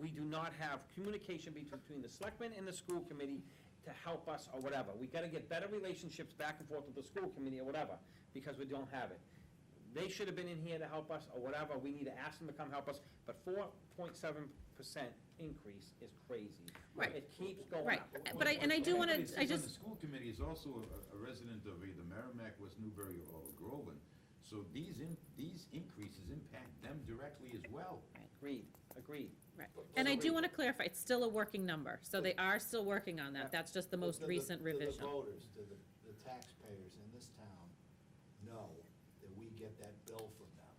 we do not have communication between between the selectmen and the school committee to help us or whatever. We gotta get better relationships back and forth with the school committee or whatever, because we don't have it. They should have been in here to help us or whatever, we need to ask them to come help us, but four point seven percent increase is crazy. Right. It keeps going up. Right. But I- and I do wanna- Anybody I sits on just- The school committee is also a- a resident of either Merrimack, West Newbury, or Groveland, so these, in- these increases impact them directly as well. Agreed, agreed. Right, and I do Agreed. want to clarify, it's still a working number, so they are still working on that, that's just the most To recent to revision. the voters, to the, the taxpayers in this town know that we get that bill from them,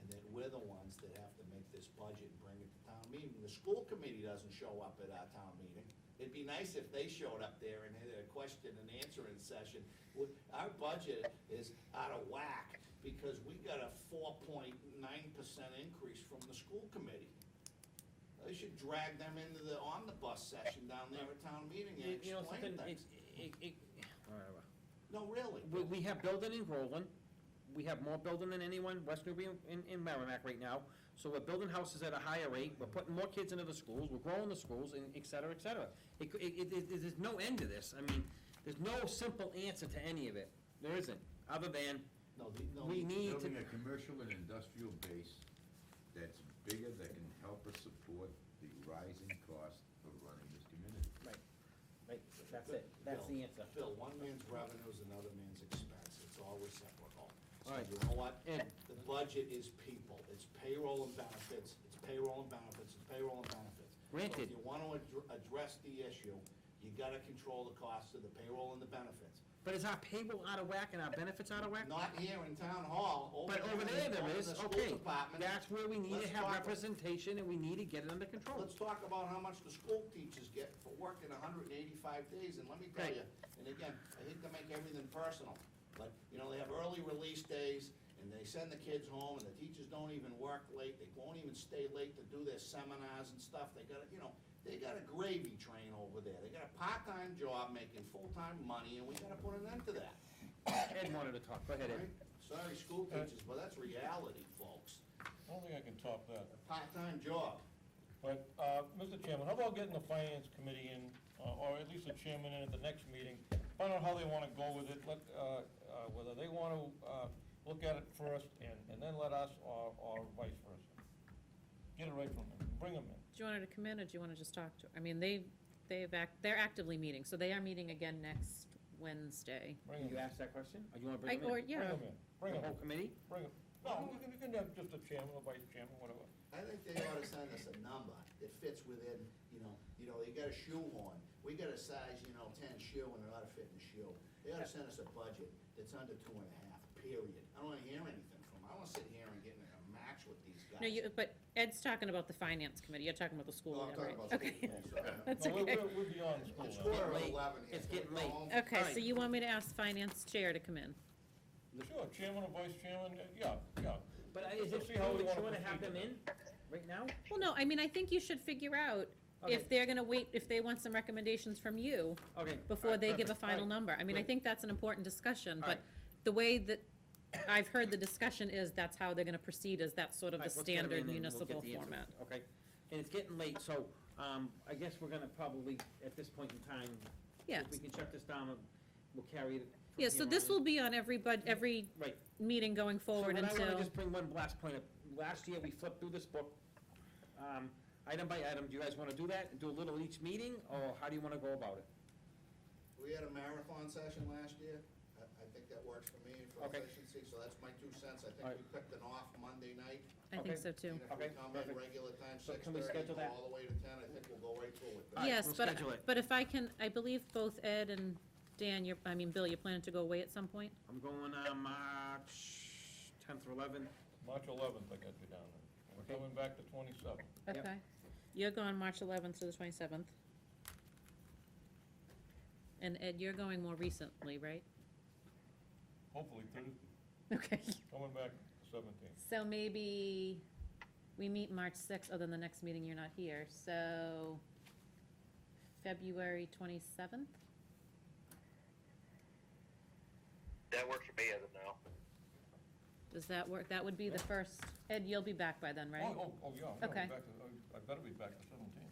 and that we're the ones that have to make this budget and bring it to town meeting. The school committee doesn't show up at our town meeting. It'd be nice if they showed up there and had a question and answering session. We- Our budget is out of whack, because we got a four point nine percent increase from the school committee. They should drag them into the omnibus session down there at town meeting and You know, explain something, things. it's, it, it, whatever. No, really. We, we have building in Groveland, we have more building than anyone, West Newbury and, and Merrimack right now. So we're building houses at a higher rate, we're putting more kids into the schools, we're growing the schools, and et cetera, et cetera. It, c- it, it- it, there's no end to this, I mean, there's no simple answer to any of it, there isn't, other than, No, the- no, we the- need to, Building a commercial and industrial base that's bigger, that can help us support the rising cost of running this community. right, that's it, that's the answer. Bill, one man's revenue is another man's expense, it's all reciprocal. So Alright. you know what? Ed, The budget is people, it's payroll and benefits, it's payroll and benefits, it's payroll and benefits. So Granted. if you wanna addr- address the issue, you gotta control the cost of the payroll and the benefits. but is our payroll out of whack and our benefits out of whack? Not here in town hall, over But there over in there there the- in is, the school okay, department. that's where we need to Let's have talk- representation, and we need to get it under control. Let's talk about how much the school teachers get for working hundred and eighty-five days, and let me tell Right. you, and again, I hate to make everything personal, but, you know, they have early release days, and they send the kids home, and the teachers don't even work late, they won't even stay late to do their seminars and stuff, they got, a- you know, they got a gravy train over there, they got a part-time job making full-time money, and we gotta put an end to that. Ed wanted to talk, go ahead, Ed. right? Sorry, school teachers, but that's reality, folks, I don't think I can top that. a part-time job. But, uh, Mr. Chairman, how about getting the finance committee in, uh, or at least the chairman in at the next meeting? Find out how they wanna go with it, let, uh, uh, whether they wanna, uh, look at it first and, and then let us, or, or vice versa. Get it right from them, bring them in. Do you want her to come in, or do you want to just talk to, her? I mean, they, they've act, they're actively meeting, so they are meeting again next Wednesday. Bring You 'em in. asked that question, Oh. or Oh, you wanna I, bring them or, in? yeah, Bring 'em in, The bring 'em whole in, committee? bring 'em. No, you can, you can have just a chairman or vice chairman, whatever. I think they ought to send us a number that fits within, you know, you know, you got a shoe on, we got a size, you know, ten shoe and it ought to fit in the shoe. They ought to send us a budget that's under two and a half, period. I don't wanna hear anything from them, I wanna sit here and get in a match with these guys. no, you, but Ed's talking about the finance committee, you're talking about the school, No, I'm one, right? talking about Okay, school, I'm sorry. That's No, we're- okay. We're, we're beyond school It's now. quarter of late. eleven here. It's Can we getting go late. home? Okay, so Fine. you want me to ask finance chair to come in? Sure, chairman or vice chairman, uh, yeah, yeah. But I- is Let's it see how true that we you wanna wanna have them proceed with in right now? Well, no, I mean, I think you should figure out Okay. if they're gonna wait, if they want some recommendations from you Okay. before Alright, they give a perfect. final Alright. number. I mean, I Great. think that's an important discussion, but Alright. the way that I've heard the discussion is that's how they're gonna proceed, is that's sort of the Alright, let's get 'em in standard and we'll municipal get the answers. format. Okay, and it's getting late, so, um, I guess we're gonna probably, at this point in time, Yeah, if we can shut this down, we'll carry it. from yeah, so here this on in. will be on every bud, every Right. meeting going forward So what I wanna until, just bring one last point up, last year, we flipped through this book, um, item by item, do you guys wanna do that, and do a little each meeting, or how do you wanna go about it? We had a marathon session last year, I, I think that works for me and for Okay. efficiency, so that's my two cents. I Alright. think we picked an off Monday night. I okay. think so too. And if we Okay, come in perfect. regular time, So six can we thirty, schedule go that? all the way to ten, I think we'll go right through with that. Alright, Yes, we'll but, schedule it. but if I can, I believe both Ed and Dan, you're, I mean, Bill, you're planning to go away at some point? I'm going, uh, March tenth or eleventh, March eleventh, I got you down there. Okay. We're coming back to twenty-seventh. Yep. Okay. You're gone March eleventh to the twenty-seventh. And Ed, you're going more recently, right? Hopefully Thursday, Okay, coming back seventeen. so maybe we meet March sixth, other than the next meeting, you're not here, so February twenty-seventh? That works for me as of now. Does that work? That would be the Yeah. first, Ed, you'll be back by then, right? Oh, oh, oh, yeah, I'm gonna Okay. be back, to- I I better be back to seventeen.